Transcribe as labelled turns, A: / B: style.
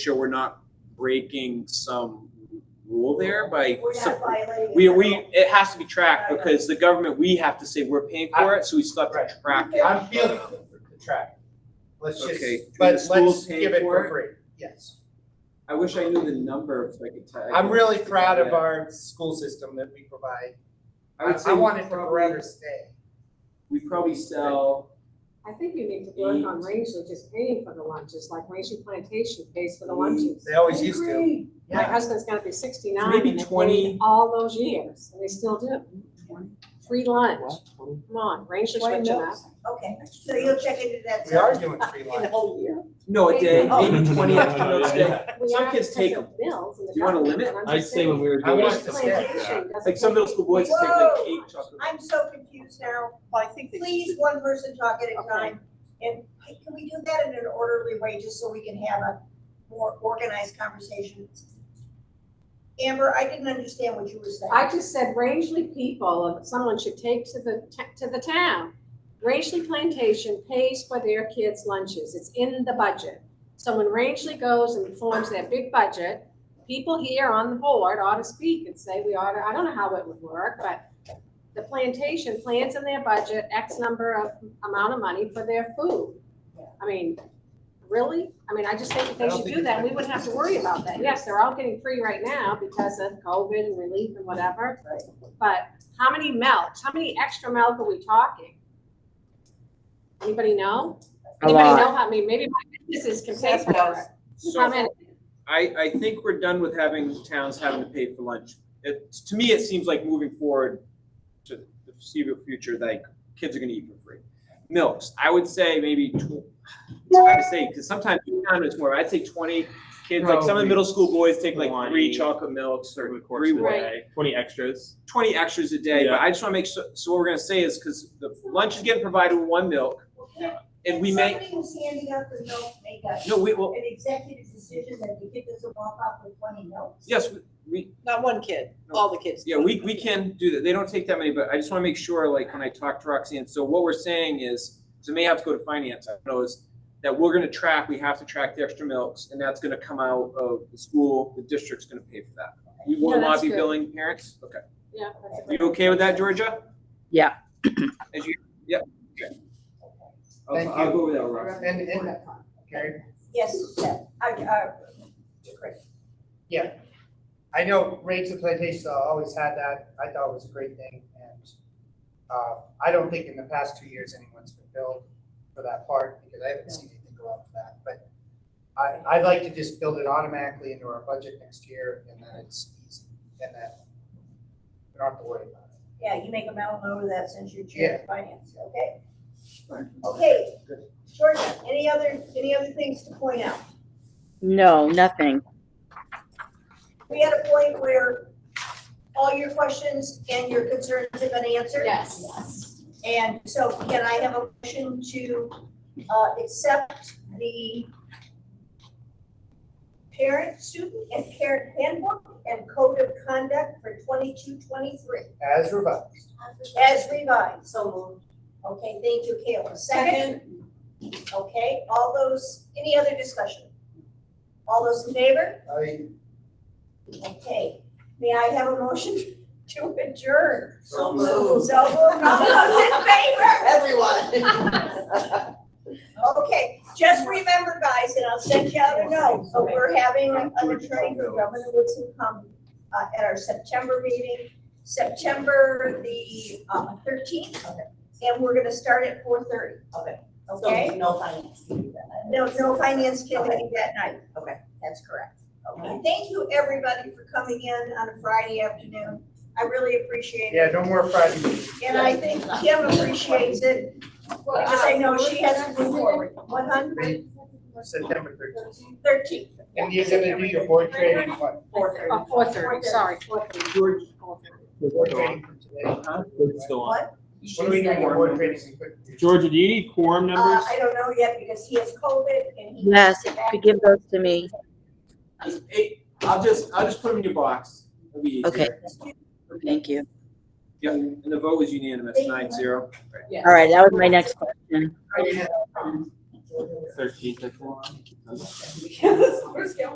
A: sure we're not breaking some rule there by.
B: We're
A: sup-
B: not Oh, violating.
A: We,
B: it.
A: we, it has to be tracked because the government, we have to say we're paying for it, so we still have to
C: Right.
A: track it.
C: I'm feeling the track. Let's just,
A: Okay, do the
C: but let's
A: schools pay
C: give it
A: for
C: for
A: it?
C: free, yes.
A: I wish I knew the number so I could tell.
C: I'm really proud of our school system that we provide.
A: I would say
C: I
A: we
C: want it to
A: probably,
C: forever stay.
A: we probably sell,
D: I think you need to work on
A: Eat.
D: Rangeley just paying for the lunches, like Rangeley Plantation pays for the lunches.
C: They always used to.
B: Agree.
D: My
C: Yeah.
D: husband's gonna be sixty-nine
A: Maybe
D: and they
A: 20.
D: paid all those years, and they still do. Free lunch, come on, Rangeley's
E: Why
D: rich enough.
E: not?
B: Okay, so you'll check into that.
C: We are doing free
E: In the
C: lunch.
E: whole year.
A: no, a day,
B: Oh.
A: maybe twenty extra notes a day.
D: We
A: Some
D: are
A: kids
D: because
A: take
D: of Bills and the
A: Do you wanna
D: government,
A: limit?
D: but I'm
F: I'd
D: just
F: say when
D: saying,
F: we were
C: I
F: doing
C: want
F: it,
C: it to stay.
D: Plantation doesn't.
A: Like some middle
D: pay-
A: school boys just take like cake, chocolate.
B: I'm so confused now.
E: Well, I think they
B: Please,
E: should-
B: one person talk at a
D: Okay.
B: time. And can we do that in an orderly way, just so we can have a more organized conversation? Amber, I didn't understand what you were saying.
D: I just said Rangeley people, uh, someone should take to the, ta- to the town. Rangeley Plantation pays for their kids' lunches, it's in the budget. So when Rangeley goes and forms their big budget, people here on the board ought to speak and say, we ought to, I don't know how it would work, but the plantation plans in their budget X number of, amount of money for their food. I mean, really? I mean, I just think that
C: I
D: they
C: don't
D: should
C: think
D: do
C: it's
D: that,
C: like-
D: we wouldn't have to worry about that. Yes, they're all getting free right now because of COVID and relief and whatever. But how many melts, how many extra milk are we talking? Anybody know? Anybody know how many, maybe my businesses can pay for it. How
A: So
D: many?
A: I, I think we're done with having towns having to pay for lunch. It, to me, it seems like moving forward to the foreseeable future, like kids are gonna eat for free. Milks, I would say maybe tw- it's hard to say, because sometimes you count it's more, I'd say twenty kids, like some of the middle school boys take like three
F: Probably
A: chocolate milks or
F: over the course
A: three
F: of the
D: Right.
F: day, twenty extras.
A: twenty extras a day, but
F: Yeah.
A: I just wanna make sure, so what we're gonna say is, cause the lunch is getting provided with one milk, and we
B: make.
A: may,
B: Somebody who's handing out the notes make a,
A: no, we will,
B: an executive decision that the kid doesn't walk off with twenty notes.
A: yes, we- we,
E: Not one kid,
A: No.
E: all the kids.
A: Yeah, we, we can do that. They don't take that many, but I just wanna make sure, like, when I talk to Roxanne, so what we're saying is, so it may have to go to finance, I don't know, is that we're gonna track, we have to track the extra milks, and that's gonna come out of the school, the district's gonna pay for that. We will
D: Yeah,
A: not
D: that's
A: be
D: good.
A: billing parents? Okay.
D: Yeah, that's a
A: You
D: great-
A: okay with that, Georgia?
G: Yeah.
A: As you, yeah, okay.
C: Thank
A: I'll, I'll
C: you.
A: go with that, Roxanne.
C: And, and, okay,
B: Yes, Steph, I, uh, I, Chris.
C: I know rates of plantation always had that. I thought it was a great thing and uh, I don't think in the past two years anyone's been billed for that part because I haven't seen anything go up for that. But I, I'd like to just build it automatically into our budget next year and then it's easy and then we don't have to worry about it.
B: Yeah, you make a mental note of that since you're chair
C: Yeah.
B: of finance, okay? Okay, Georgia, any other, any other things to point out?
G: No, nothing.
B: We had a point where all your questions and your concerns have been answered.
D: Yes.
B: And so can I have a motion to, uh, accept the parent, student and parent handbook and code of conduct for twenty-two, twenty-three
C: As revised.
B: as revised? So moved. Okay, thank you, Kayla. Second? Okay, all those, any other discussion? All those in favor?
C: I,
B: Okay, may I have a motion to adjourn?
C: So
B: moved. So moved, all those in favor?
E: Everyone.
B: Okay, just remember, guys, and I'll send you out a note, but we're having an attorney for Governor Woodson come uh, at our September meeting, September the uh, thirteenth, and we're gonna start at four thirty.
E: Okay.
B: Okay?
E: No finance.
B: No, no finance committee that night.
E: Okay.
B: That's correct. Okay, thank you, everybody, for coming in on a Friday afternoon. I really appreciate it.
C: yeah, no more Friday meetings.
B: And I think Kim appreciates it, because I know she has to move forward. One hundred
C: September thirteenth.
B: thirteen.
C: And you're gonna do your board training what?
B: Four thirty.
D: Oh, four thirty, sorry, four thirty.
A: George,
C: Board training from today.
A: huh?
F: It's still on.
C: What do we do for board training?
F: Georgia, do you need quorum
B: Uh,
F: numbers?
B: I don't know yet because he has COVID and he.
G: Yes, if you could give those to me.
A: Hey, I'll just, I'll just put them in your box. It'll be easier.
G: Okay. Thank you.
A: Yeah, and the vote was unanimous,
B: Thank you.
A: nine zero.
G: All right, that was my next question.
F: Thirteenth, I think.
E: Yes, we're still-